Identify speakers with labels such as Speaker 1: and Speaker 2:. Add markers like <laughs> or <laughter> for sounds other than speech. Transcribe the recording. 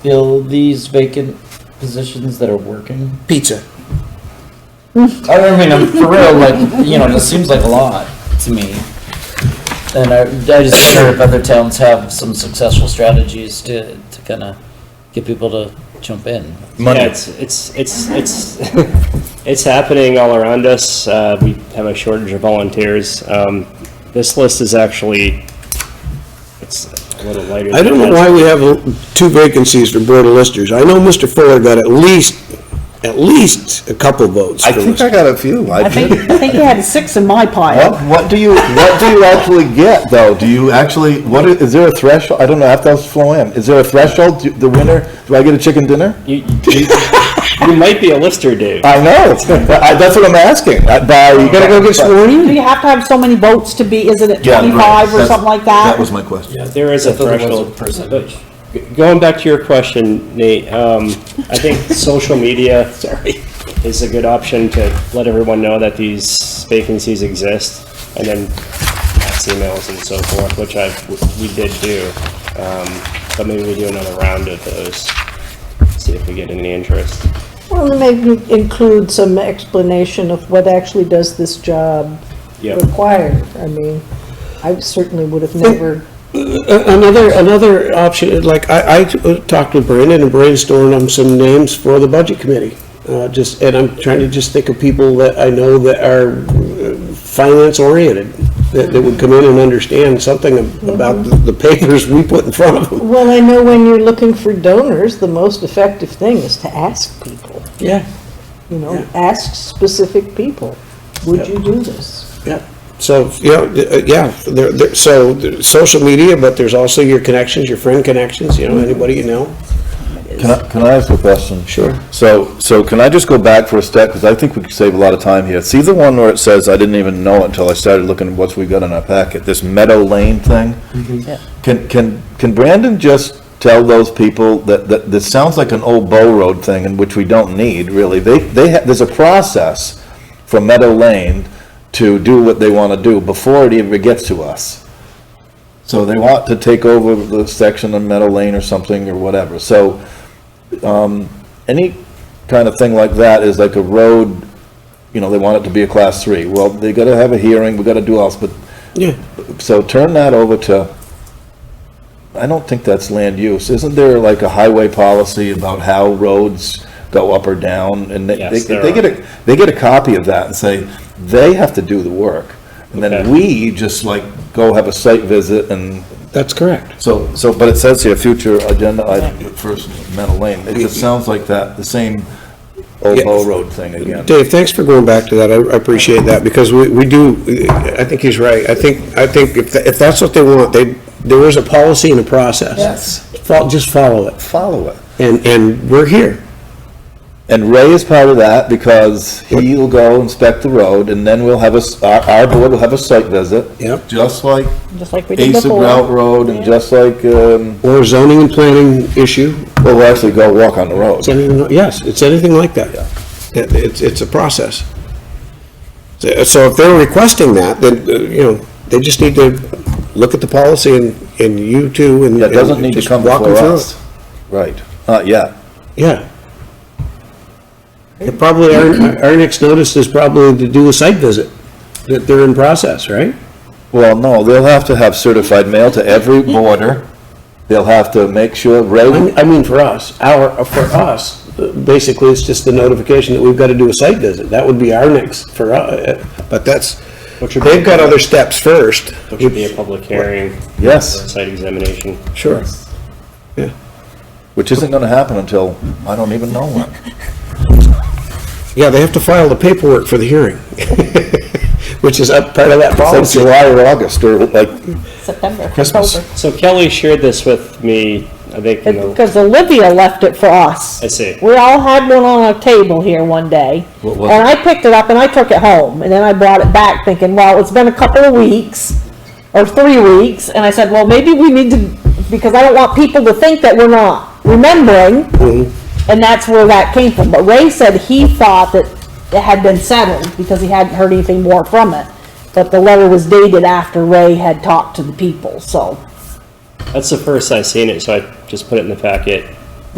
Speaker 1: fill these vacant positions that are working?
Speaker 2: Pizza.
Speaker 1: I don't mean, I'm for real, like, you know, this seems like a lot to me. And I, I just wonder if other towns have some successful strategies to, to kind of get people to jump in.
Speaker 3: Yeah, it's, it's, it's, it's, <laughs> it's happening all around us. Uh, we have a shortage of volunteers. Um, this list is actually, it's a little lighter.
Speaker 2: I don't know why we have uh, two vacancies for Board of Listers. I know Mr. Fuller got at least, at least a couple votes
Speaker 4: I
Speaker 2: for
Speaker 4: think I
Speaker 2: listers.
Speaker 4: got a few. I
Speaker 5: I think,
Speaker 4: did.
Speaker 5: I think you had six in my
Speaker 4: Well,
Speaker 5: pile.
Speaker 4: what do you what do you actually get though? Do you actually what is, is there a threshold? I don't know. I have to ask Flo Ann. Is there a threshold? Do, the winner? Do I get a chicken dinner?
Speaker 3: You, you, you might be a lister, dude.
Speaker 4: I know. <laughs> I, that's what I'm asking. I, by you
Speaker 2: Gotta go get sworn in?
Speaker 5: Do you have to have so many votes to be, isn't it
Speaker 4: Yeah, right.
Speaker 5: twenty-five or
Speaker 4: That's-
Speaker 5: something like
Speaker 4: That
Speaker 5: that?
Speaker 4: was my question.
Speaker 3: There is a
Speaker 1: If there was a
Speaker 3: threshold.
Speaker 1: percentage.
Speaker 3: But Going back to your question, Nate, um, I
Speaker 1: <laughs>
Speaker 3: think social media. Sorry. Is a good option to let everyone know that these vacancies exist and then fax emails and so forth, which I, we did do. Um, but maybe we do another round of those, see if we get any interest.
Speaker 6: Well, and maybe include some explanation of what actually does this job
Speaker 3: Yeah.
Speaker 6: require. I mean, I certainly would have never,
Speaker 2: A- uh, Another, another option, like, I, I uh, talked with Brandon and brainstormed on some names for the Budget Committee. Uh, just, and I'm trying to just think of people that I know that are uh, finance oriented, that, that would come in and understand something ab- about the the papers we put in front of them.
Speaker 6: well, I know when you're looking for donors, the most effective thing is to ask people,
Speaker 2: Yeah.
Speaker 6: you know, ask specific people, would you do this?
Speaker 2: Yeah, so, you know, th- uh, yeah, there, there, so, the social media, but there's also your connections, your friend connections, you know, anybody you know.
Speaker 4: Can I, can I ask a question?
Speaker 2: Sure.
Speaker 4: So, so can I just go back for a step, because I think we could save a lot of time here. See the one where it says, I didn't even know it until I started looking at what we got in our packet, this Meadow Lane thing? Can, can, can Brandon just tell those people that, that, this sounds like an old Bow Road thing, and which we don't need, really? They, they, ha- there's a process for Meadow Lane to do what they want to do before it ever gets to us. So they want to take over the section on Meadow Lane or something or whatever. So, um, any kind of thing like that is like a road, you know, they want it to be a class three. Well, they gotta have a hearing, we gotta do all, but,
Speaker 2: Yeah,
Speaker 4: so turn that over to, I don't think that's land use. Isn't there like a highway policy about how roads go up or down? And they, they
Speaker 3: Yes, there
Speaker 4: they get
Speaker 3: are.
Speaker 4: a, they get a copy of that and say, they have to do the work. And then
Speaker 3: Okay.
Speaker 4: we just like go have a site visit and
Speaker 2: that's correct.
Speaker 4: so, so, but it says here, future agenda item, first metal lane, it just sounds like that, the same old
Speaker 2: Yeah.
Speaker 4: Bow Road thing again.
Speaker 2: Dave, thanks for going back to that, I I appreciate that, because we, we do, I think he's right, I think, I think if, tha- if that's what they want, they, there is a policy and a process.
Speaker 4: Yes.
Speaker 2: Fol- Just follow it,
Speaker 4: Follow it.
Speaker 2: and, and we're here.
Speaker 4: And Ray is part of that because he'll go inspect the road and then we'll have a, s- our, our board will have a site visit.
Speaker 2: Yep.
Speaker 4: Just like
Speaker 5: Just like we did
Speaker 4: Ace of
Speaker 5: before.
Speaker 4: Route Road and just like, um,
Speaker 2: Or zoning and planning issue,
Speaker 4: well, we'll actually go walk on the road.
Speaker 2: It's anything, yes, it's anything like that. It- It's, it's a process. So so if they're requesting that, then, uh, you know, they just need to look at the policy and, and you two and.
Speaker 4: That doesn't need to
Speaker 2: just
Speaker 4: come
Speaker 2: walk them
Speaker 4: before
Speaker 2: through
Speaker 4: us. Right, not yet.
Speaker 2: it. Yeah. And Probably, our, our next notice is probably to do a site visit, that they're in process, right?
Speaker 4: Well, no, they'll have to have certified mail to
Speaker 5: <laughs>
Speaker 4: every border. They'll have to make sure, Ray
Speaker 2: I mean- I mean, for us, our, for us, uh, basically, it's just the notification that we've got to do a site visit. That would be our next, for, uh, but that's,
Speaker 3: Which would be-
Speaker 2: they've got other steps first.
Speaker 3: Which would be a public hearing.
Speaker 4: Yes.
Speaker 3: or a Site examination.
Speaker 2: Sure. Yeah.
Speaker 4: Which isn't gonna happen until, I don't even know when.
Speaker 2: Yeah, they have to file the paperwork for the hearing, <laughs> which is up part of that
Speaker 4: It's
Speaker 2: policy.
Speaker 4: like July or August, or like,
Speaker 5: September,
Speaker 4: Christmas.
Speaker 5: October.
Speaker 3: So Kelly shared this with me, I think, in the
Speaker 5: Because Olivia left it for us.
Speaker 3: I see.
Speaker 5: We all had one on our table here one day.
Speaker 4: What was
Speaker 5: And I picked it up and I took it home, and then I brought it back thinking, well, it's been a couple of weeks, or three weeks, and I said, well, maybe we need to, because I don't want people to think that we're not remembering,
Speaker 4: Mm-hmm.
Speaker 5: and that's where that came from. But Ray said he thought that it had been settled, because he hadn't heard anything more from it, but the letter was dated after Ray had talked to the people, so.
Speaker 3: That's the first I seen it, so I just put it in the packet.